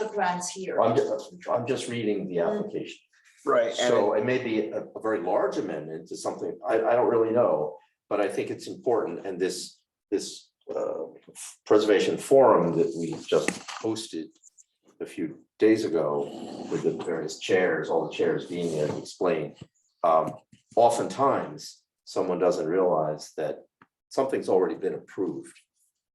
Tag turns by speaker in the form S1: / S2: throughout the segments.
S1: restaurants here.
S2: I'm, ju- I'm just reading the application.
S3: Mm-hmm. Right, and,
S2: So it may be a, a very large amendment to something, I, I don't really know, but I think it's important, and this, this, uh, preservation forum that we just hosted a few days ago with the various chairs, all the chairs being there to explain. Um, oftentimes, someone doesn't realize that something's already been approved.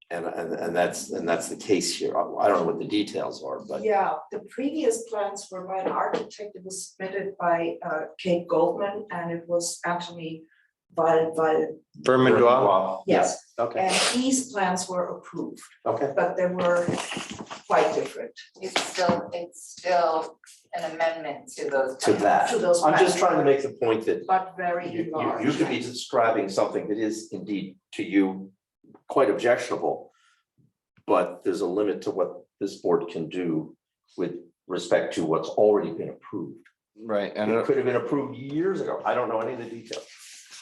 S2: And, and, and that's, and that's the case here, I I don't know what the details are, but
S4: Yeah, the previous plans were by an architect, it was submitted by uh Kate Goldman, and it was actually by by,
S3: Berman Dwell,
S2: Yes,
S4: yes,
S3: okay,
S4: and these plans were approved,
S2: okay,
S4: but they were quite different
S5: It's still, it's still an amendment to those.
S2: to
S5: plans.
S2: that.
S4: to those
S2: I'm just
S4: plans,
S2: trying to make the point that
S4: but very
S2: you, you,
S4: large.
S2: you could be describing something that is indeed to you quite objectionable. But there's a limit to what this board can do with respect to what's already been approved.
S3: right, and
S2: It
S3: uh,
S2: could have been approved years ago. I don't know any of the details.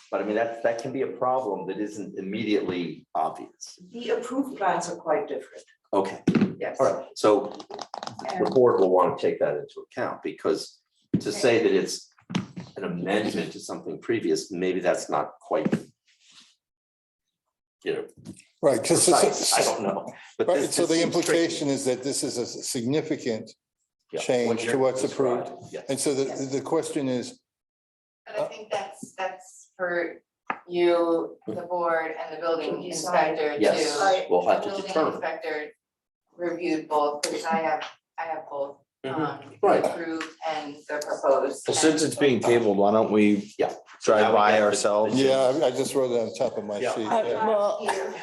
S2: But I mean, that, that can be a problem that isn't immediately obvious.
S4: The approved plans are quite different,
S2: Okay,
S4: yes.
S2: all right. So the
S4: And
S2: board will want to take that into account because to say that it's an amendment to something previous, maybe that's not quite. You know,
S6: Right, because,
S2: precise, I don't know. but
S6: right,
S2: this-
S6: so
S2: this
S6: the
S2: seems tricky.
S6: implication is that this is a significant,
S2: Yeah, what
S6: change to
S2: you're
S6: what's approved.
S2: describing, yeah.
S6: and so the, the question is,
S5: But I think that's, that's for you, the board and the building
S4: To decide.
S5: inspector to.
S2: Yes, we'll have
S5: The
S2: to
S5: building
S2: determine.
S5: inspector reviewed both, because I have, I have both,
S3: Mm-hmm.
S7: uh,
S5: um,
S2: Mm-hmm. Right.
S5: approved and the proposed.
S3: well, since it's being tabled, why don't we?
S2: Yeah.
S3: Drive by ourselves?
S6: yeah, I- I just wrote it on top of my
S2: Yeah.
S6: sheet.
S7: Uh,
S6: yeah.
S7: well,
S4: here,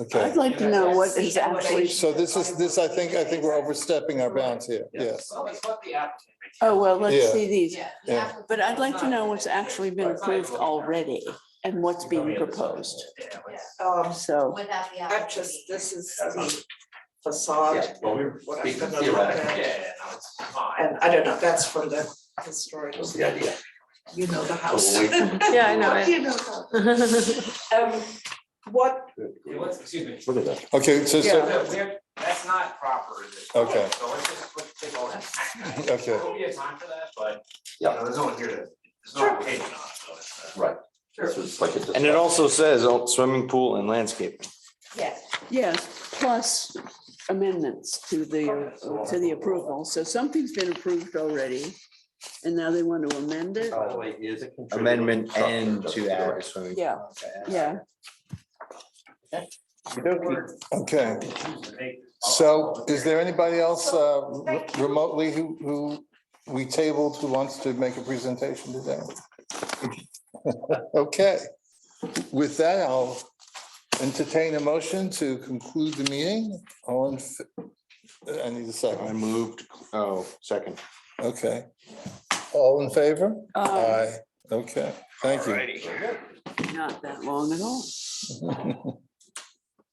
S6: Okay,
S7: I'd like to know what is actually,
S6: so this is, this, I think, I think we're overstepping our bounds here,
S2: Yeah.
S6: yes.
S8: Well, that's what the applicant.
S7: oh, well, let's
S6: Yeah.
S7: see these.
S5: Yeah.
S6: Yeah.
S5: yeah.
S7: But I'd like to know what's actually been approved already and what's being proposed.
S8: Yeah, let's-
S4: um,
S7: So,
S5: Without the.
S4: that just, this is the
S2: Yeah,
S4: facade,
S2: well, we we're
S4: What I'm
S2: speaking
S4: gonna look
S2: theoretically,
S4: at.
S8: Yeah, yeah, no, it's fine.
S4: and I don't know, that's from the historical,
S2: was the idea.
S4: you know, the house.
S2: So we'll wait.
S7: Yeah, I know it.
S4: You know how- Um, what,
S8: Yeah, let's- excuse me.
S2: Look at that.
S6: Okay, so,
S8: So
S6: so,
S8: that we're- that's not proper, is it?
S6: Okay.
S8: So let's just put, take all that.
S6: Okay.
S8: There'll be a time for that, but, you
S2: Yeah.
S8: know, there's no one here to, there's no opinion on it, so it's, uh.
S2: Right.
S4: Sure.
S2: This was like a.
S3: And it also says oh, swimming pool and landscaping.
S5: Yes.
S7: yes, plus amendments to the, to the approval. So something's been approved already. And now they want to amend it.
S6: Uh,
S2: By the way, is a contributing
S3: Amendment
S2: factor,
S3: and
S2: just
S3: to
S2: the
S3: add a
S2: right.
S3: swimming.
S7: Yeah, yeah.
S6: okay. So is there anybody else uh, re- remotely who, who we tabled who wants to make a presentation today? Okay, with that, I'll entertain a motion to conclude the meeting on, I need a
S3: I
S6: second,
S3: moved, oh, second.
S6: okay. All in favor?
S7: Uh,
S6: Okay, thank you.
S8: Alrighty.
S7: Not that long at all.